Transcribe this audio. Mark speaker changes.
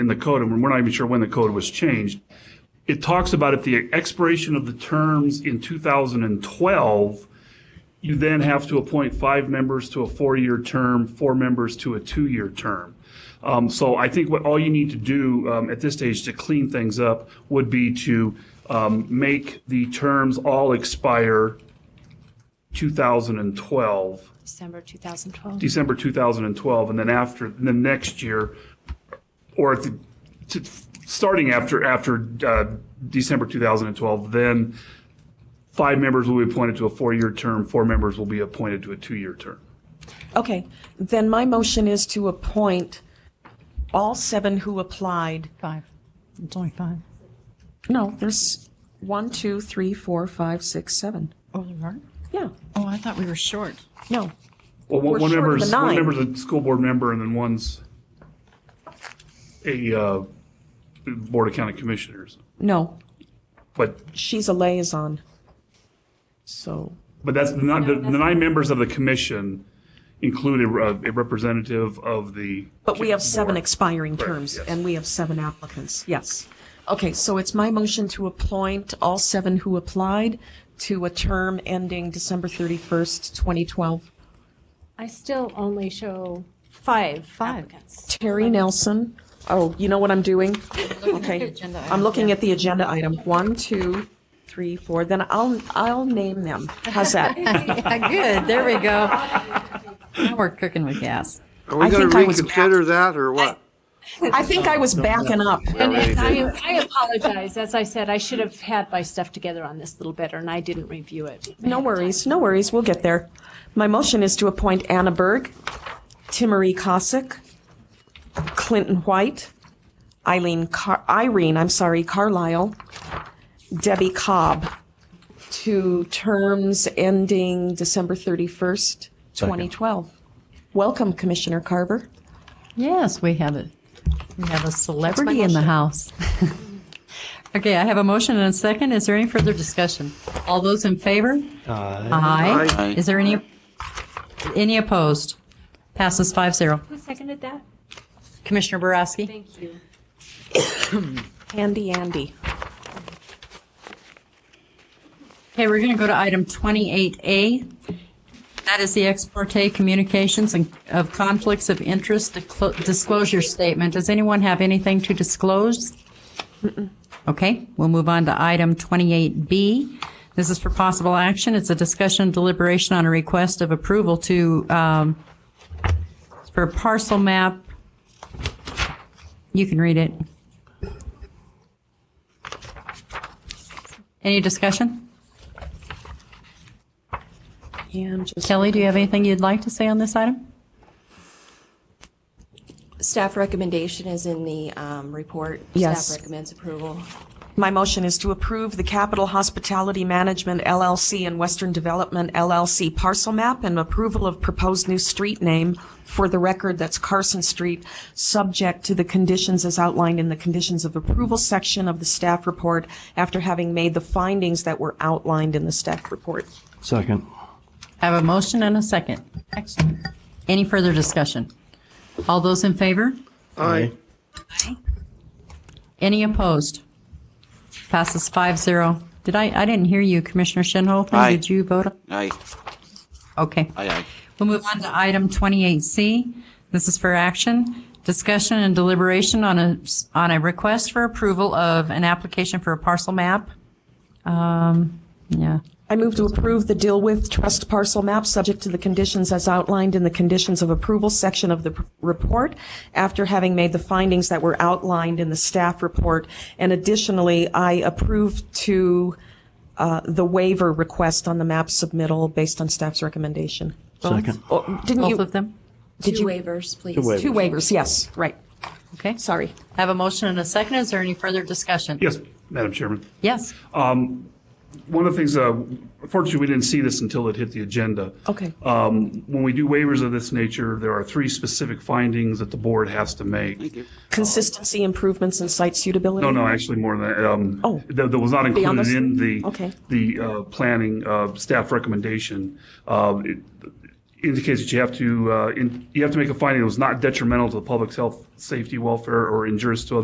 Speaker 1: in the code, and we're not even sure when the code was changed. It talks about if the expiration of the terms in 2012, you then have to appoint five members to a four-year term, four members to a two-year term. Um, So I think what all you need to do um, at this stage to clean things up would be to um, make the terms all expire 2012.
Speaker 2: December 2012.
Speaker 1: December 2012, and then after, and then next year, or if, to- starting after, after uh, December 2012, then five members will be appointed to a four-year term, four members will be appointed to a two-year term.
Speaker 3: Okay, then my motion is to appoint all seven who applied.
Speaker 4: Five. It's only five.
Speaker 3: No, there's one, two, three, four, five, six, seven.
Speaker 4: Oh, there are?
Speaker 3: Yeah,
Speaker 4: Oh, I thought we were short.
Speaker 3: no.
Speaker 1: Well, one-
Speaker 3: We're
Speaker 1: one
Speaker 3: short of the
Speaker 1: member's, one
Speaker 3: nine.
Speaker 1: member's a school board member, and then one's a uh, Board of County Commissioners.
Speaker 3: No,
Speaker 1: But,
Speaker 3: she's a liaison. So,
Speaker 1: but that's not, the the nine members of the commission include a re- a representative of the.
Speaker 3: but we have seven
Speaker 1: board.
Speaker 3: expiring terms,
Speaker 1: yes.
Speaker 3: and we have seven applicants, yes. Okay, so it's my motion to appoint all seven who applied to a term ending December 31st, 2012.
Speaker 5: I still only show five applicants.
Speaker 3: Terry Nelson. Oh, you know what I'm doing? Okay. I'm looking at the agenda item. One, two, three, four. Then I'll, I'll name them. How's that?
Speaker 4: Good, there we go. Now we're cooking with gas.
Speaker 6: Are we
Speaker 3: I
Speaker 6: going
Speaker 3: think
Speaker 6: to
Speaker 3: I was
Speaker 6: reconsider that or what?
Speaker 3: I think I was backing up.
Speaker 5: And I I apologize, as I said, I should have had my stuff together on this a little better, and I didn't review it.
Speaker 3: No worries, no worries. We'll get there. My motion is to appoint Anna Berg, Timmery Cossack, Clinton White, Eileen Car- Irene, I'm sorry, Carlisle, Debbie Cobb to terms ending December 31st, 2012. Welcome, Commissioner Carver.
Speaker 4: Yes, we have it. We have a celebrity in the
Speaker 3: motion.
Speaker 4: house. Okay, I have a motion and a second. Is there any further discussion? All those in favor? Aye.
Speaker 6: Aye.
Speaker 4: Is there any, any opposed? Passes five zero.
Speaker 5: Who seconded that?
Speaker 4: Commissioner Boraski?
Speaker 5: Thank you.
Speaker 3: Andy, Andy.
Speaker 4: Okay, we're going to go to item 28A. That is the ex parte communications and- of conflicts of interest disclo- disclosure statement. Does anyone have anything to disclose? Okay, we'll move on to item 28B. This is for possible action. It's a discussion and deliberation on a request of approval to, um, for parcel map. You can read it. Any discussion?
Speaker 3: And just
Speaker 4: Kelly, do you have anything you'd like to say on this item?
Speaker 7: Staff recommendation is in the um, report.
Speaker 3: Yes.
Speaker 7: Staff recommends approval.
Speaker 3: My motion is to approve the Capital Hospitality Management LLC and Western Development LLC parcel map and approval of proposed new street name for the record, that's Carson Street, subject to the conditions as outlined in the conditions of approval section of the staff report after having made the findings that were outlined in the staff report.
Speaker 8: Second.
Speaker 4: I have a motion and a second. Excellent. Any further discussion? All those in favor?
Speaker 6: Aye.
Speaker 4: Any opposed? Passes five zero. Did I, I didn't hear you, Commissioner Shinholz.
Speaker 6: Aye.
Speaker 4: Did you vote?
Speaker 9: Aye,
Speaker 4: Okay.
Speaker 9: aye, aye.
Speaker 4: We'll move on to item 28C. This is for action, discussion and deliberation on a, on a request for approval of an application for a parcel map. Um, Yeah.
Speaker 3: I move to approve the deal with trust parcel map subject to the conditions as outlined in the conditions of approval section of the p- report after having made the findings that were outlined in the staff report. And additionally, I approve to uh, the waiver request on the map submittal based on staff's recommendation.
Speaker 8: Second.
Speaker 3: Oh, Didn't
Speaker 4: Both
Speaker 3: you?
Speaker 4: of them?
Speaker 7: Two waivers, please.
Speaker 3: Two waivers, yes, right.
Speaker 4: Okay.
Speaker 3: Sorry.
Speaker 4: I have a motion and a second. Is there any further discussion?
Speaker 1: Yes, Madam Chairman.
Speaker 4: Yes.
Speaker 1: One of the things, uh, fortunately, we didn't see this until it hit the agenda.
Speaker 3: Okay.
Speaker 1: Um, When we do waivers of this nature, there are three specific findings that the board has to make.
Speaker 3: Consistency improvements and site suitability?
Speaker 1: No, no, actually more than that. um,
Speaker 3: Oh.
Speaker 1: That that was not
Speaker 3: Beyond
Speaker 1: included
Speaker 3: this?
Speaker 1: in the,
Speaker 3: Okay.
Speaker 1: the uh, planning uh, staff recommendation. Um, it- indicates that you have to, uh, in- you have to make a finding that was not detrimental to the public's health, safety, welfare, or injurious to other